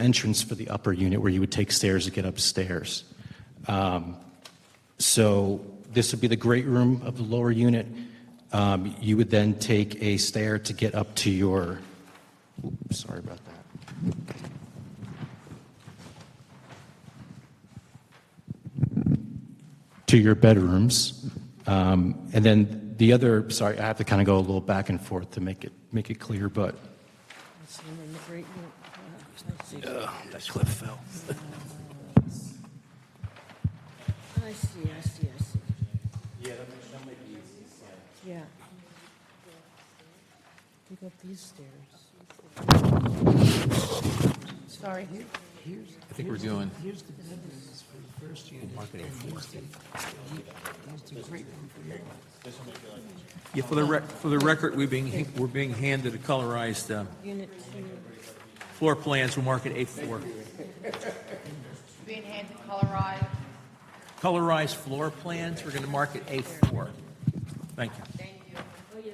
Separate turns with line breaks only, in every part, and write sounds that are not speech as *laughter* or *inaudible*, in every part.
entrance for the upper unit where you would take stairs to get upstairs. Um, So this would be the great room of the lower unit. Um, You would then take a stair to get up to your, Oop, sorry about that. To your bedrooms. Um, And then the other, sorry, I have to kind of go a little back and forth to make it, make it clear, but.
It's in the great room. Let's see.
That cliff
*laughs*
fell.
I see, I see, I see. Yeah, that might be easy. Yeah. Pick up these stairs. Sorry, here, here's,
I think we're doing,
here's the bedrooms for the first unit. Marketing Here's the great room for your,
yeah, for the rec, for the record, we're being, we're being handed a colorized uh,
unit two.
floor plans for Market Eighth Floor.
Being handed colorized,
Colorized floor plans, we're gonna mark it Eighth Floor. Thank you.
thank you.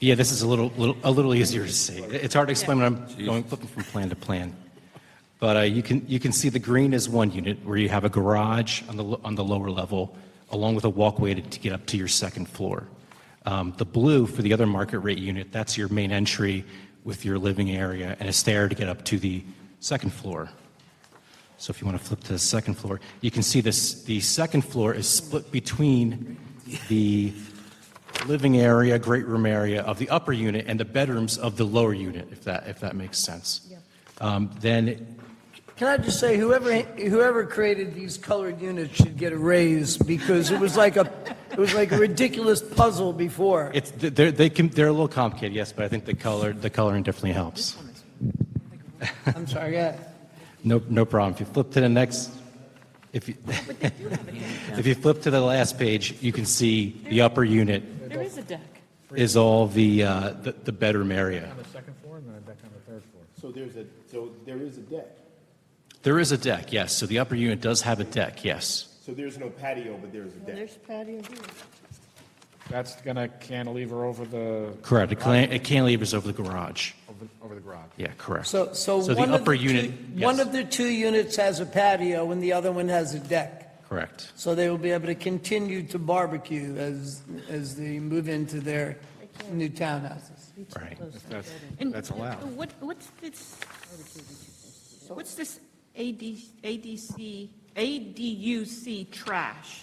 Yeah, this is a little, little, a little easier to see. It's hard to explain when I'm going, flipping from plan to plan. But uh, you can, you can see the green is one unit where you have a garage on the, lo- on the lower level, along with a walkway to, to get up to your second floor. Um, the blue for the other market rate unit, that's your main entry with your living area and a stair to get up to the second floor. So if you want to flip to the second floor, you can see this, the second floor is split between the living area, great room area of the upper unit and the bedrooms of the lower unit, if that, if that makes sense. Um, Then,
Can I just say, whoever whoever created these colored units should get a raise because it was like a it was like a ridiculous puzzle before.
it's, they're, they can, they're a little complicated, yes, but I think the color, the coloring definitely helps.
I'm sorry, yeah.
No, no problem. If you flip to the next, if you, *laughs* if you flip to the last page, you can see the upper unit
There is a deck.
is all the, uh, the the bedroom area.
the second floor and then a deck on the third floor.
So there's a, so there is a deck.
There is a deck, yes. So the upper unit does have a deck, yes.
So there's no patio, but there's a deck.
There's patio here.
That's gonna cantilever over the,
Correct. It can- It cantilevers over the garage.
over- over the garage.
Yeah, correct.
So so,
So the
one of
upper
two-
unit,
one
yes.
of the two units has a patio and the other one has a deck.
Correct.
So they will be able to continue to barbecue as as they move into their new townhouses.
Right.
That's,
And
that's allowed.
What, what's this, what's this AD, ADC, ADUC trash?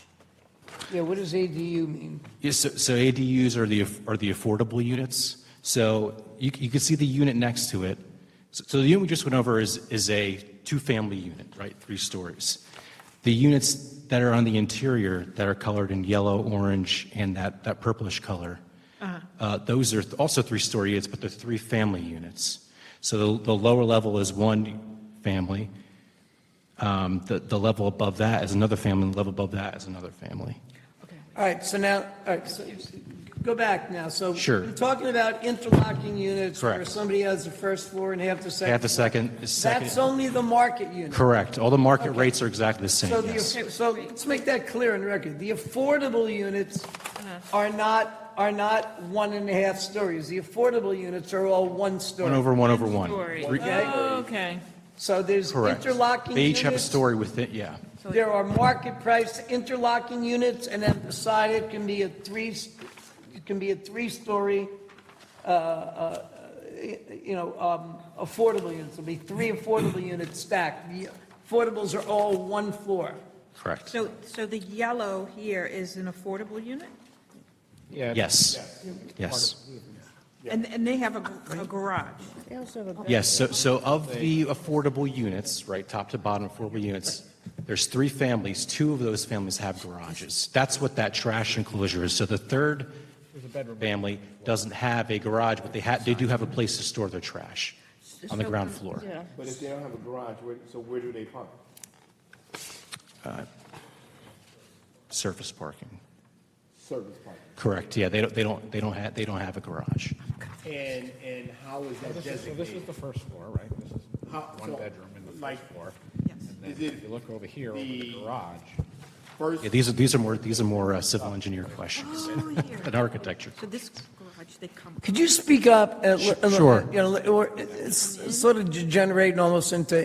Yeah, what does ADU mean?
Yes, so, so ADUs are the, aff- are the affordable units. So you, c- you can see the unit next to it. So, so the unit we just went over is, is a two-family unit, right, three stories. The units that are on the interior that are colored in yellow, orange, and that, that purplish color, uh, those are th- also three-story units, but they're three-family units. So the, the lower level is one family. Um, the, the level above that is another family, and the level above that is another family.
All right, so now, all right, so go back now. So
Sure.
we're talking about interlocking units where
Correct.
somebody has the first floor and half the
Half the
second.
second, second.
That's only the market unit.
Correct. All the market rates are exactly the same,
So the,
yes.
so let's make that clear on the record. The affordable units are not, are not one and a half stories. The affordable units are all one
One
story.
over, one over one.
Story.
Re-
Okay.
So there's
Correct.
interlocking
They each have a
units.
story with it, yeah.
There are market price interlocking units and then beside it can be a three, it can be a three-story, uh, you know, um, affordable units, it'll be three affordable units stacked. The affordables are all one floor.
Correct.
So, so the yellow here is an affordable unit?
Yeah.
Yes, yes.
And, and they have a g- a garage?
They also have a bedroom.
Yes, so, so of the affordable units, right, top to bottom affordable units, there's three families, two of those families have garages. That's what that trash enclosure is. So the third family doesn't have a garage, but they have, they do have a place to store their trash on the ground floor.
But if they don't have a garage, where, so where do they park?
Surface parking.
Service park.
Correct, yeah, they don't, they don't, they don't have, they don't have a garage.
And, and how is that
This is, so this is
designated?
the first floor, right? This is
How-
one
so,
bedroom in the
like,
first floor. And
Is
then
it
if you look over here, over the
the-
garage,
First,
Yeah, these are, these are more, these are more uh, civil engineer questions than architecture.
So this garage, they come,
Could you uh, speak up? and let-
Sure.
You know, or it's sort of degenerating almost into